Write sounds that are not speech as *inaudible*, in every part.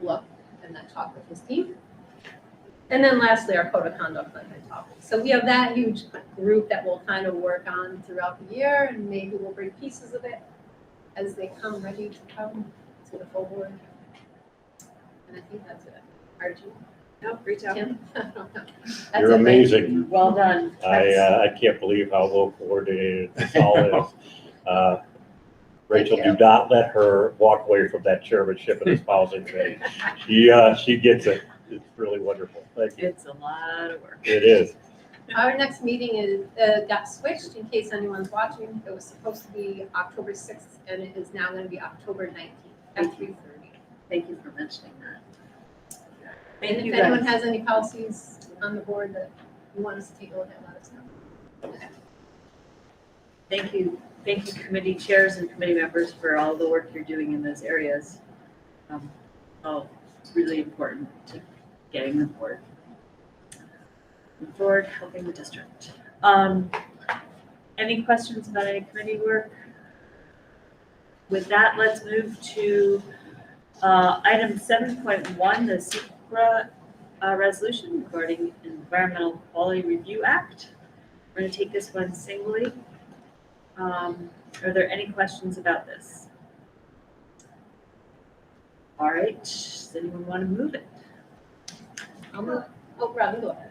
look and then talk with his team. And then lastly, our code of conduct on that topic. So we have that huge group that we'll kind of work on throughout the year and maybe we'll bring pieces of it as they come ready to come to the full board. And I think that's it. Archie, Nope, reach out. Tim? *laughs* I don't know. That's it, You're right? amazing. Well done. I, That's- uh, I can't believe how well coordinated this all is. Uh, Rachel, Thank you. do not let her walk away from that chairmanship and espousing thing. She, uh, she gets it. It's really wonderful. Thank you. It's a lot of work. It is. Our next meeting is, uh, got switched in case anyone's watching. It was supposed to be October sixth and it is now gonna be October nineteenth at three thirty. Thank you for mentioning that. And Thank if you anyone guys. has any policies on the board that you want us to take a look at, let us know. Thank you, thank you committee chairs and committee members for all the work you're doing in those areas. Um, Oh, it's really important to getting the board. the Board helping the district. Um, Any questions about any committee work? With that, let's move to uh, item seven point one, the SECR, uh resolution regarding Environmental Quality Review Act. We're gonna take this one singly. Um, are there any questions about this? All right, does anyone want to move it? I'll move, oh, Robin, go ahead.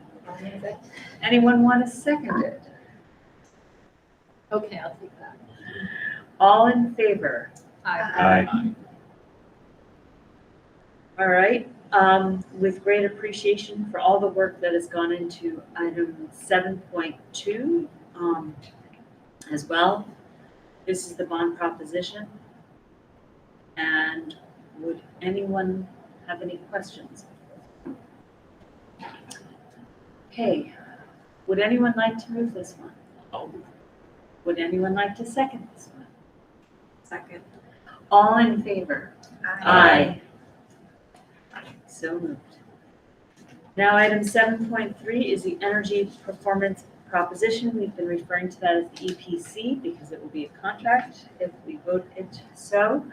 Anyone want to second it? Okay, I'll take that. All in favor? Aye. Aye. All right, um, with great appreciation for all the work that has gone into item seven point two, um, as well. This is the bond proposition. And would anyone have any questions? Okay, would anyone like to move this one? Would anyone like to second this one? Second. All in favor? Aye. So moved. Now, item seven point three is the energy performance proposition. We've been referring to that as the EPC because it will be a contract if we vote it so.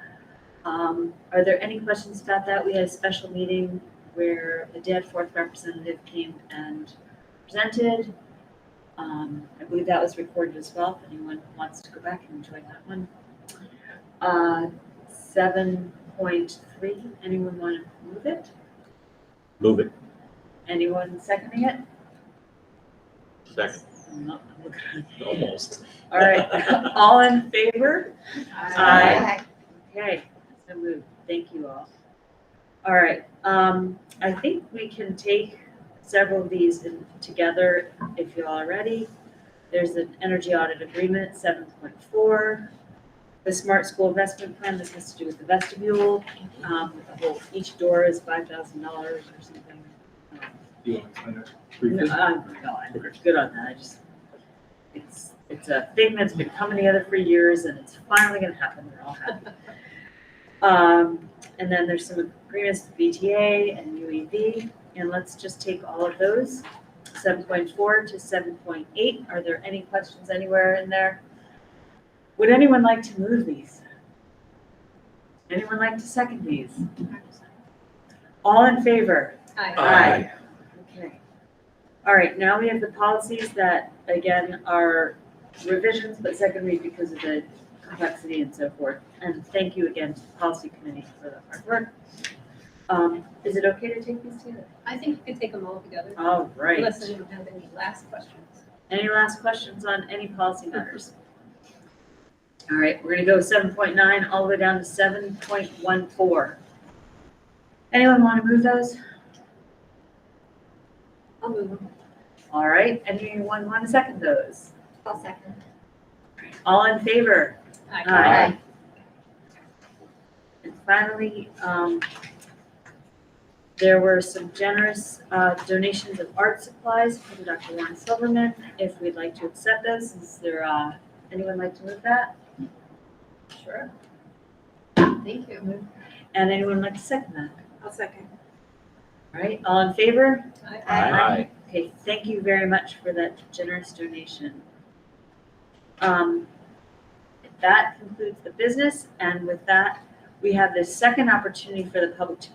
Um, are there any questions about that? We had a special meeting where the Danforth representative came and presented. Um, I believe that was recorded as well, if anyone wants to go back and enjoy that one. Uh, seven point three, anyone want to move it? Move it. Anyone seconding it? Second, No, okay. almost. All right, all in favor? Aye. Okay, so moved, thank you all. All right, um, I think we can take several of these in- together if you all are ready. There's an energy audit agreement, seven point four. The smart school investment plan, this has to do with the vestibule. Um, the whole- each door is five thousand dollars or something. Um, You want to explain it No, briefly? I'm, no, I'm good on that, I just, it's, it's a thing that's been coming together for years and it's finally gonna happen, we're all happy. Um, and then there's some agreements with BTA and UEV, and let's just take all of those, seven point four to seven point eight, are there any questions anywhere in there? Would anyone like to move these? Anyone like to second these? All in favor? Aye. Aye. Okay. All right, now we have the policies that, again, are revisions, but secondary because of the complexity and so forth. And thank you again to the policy committee for the hard work. Um, is it okay to take these together? I think you can take them all together. All right. Unless anyone has any last questions. Any last questions on any policy matters? All right, we're gonna go seven point nine all the way down to seven point one four. Anyone wanna move those? I'll move them. All right, anyone wanna second those? I'll second. All in favor? Aye. Aye. And finally, um, there were some generous uh, donations of art supplies from Dr. Warren Silverman, if we'd like to accept those, is there, uh, anyone like to move that? Sure. Thank you. And anyone like to second that, I'll second. All right? All in favor? Aye. Aye. Okay, thank you very much for that generous donation. Um, That concludes the business, and with that, we have the second opportunity for the public to be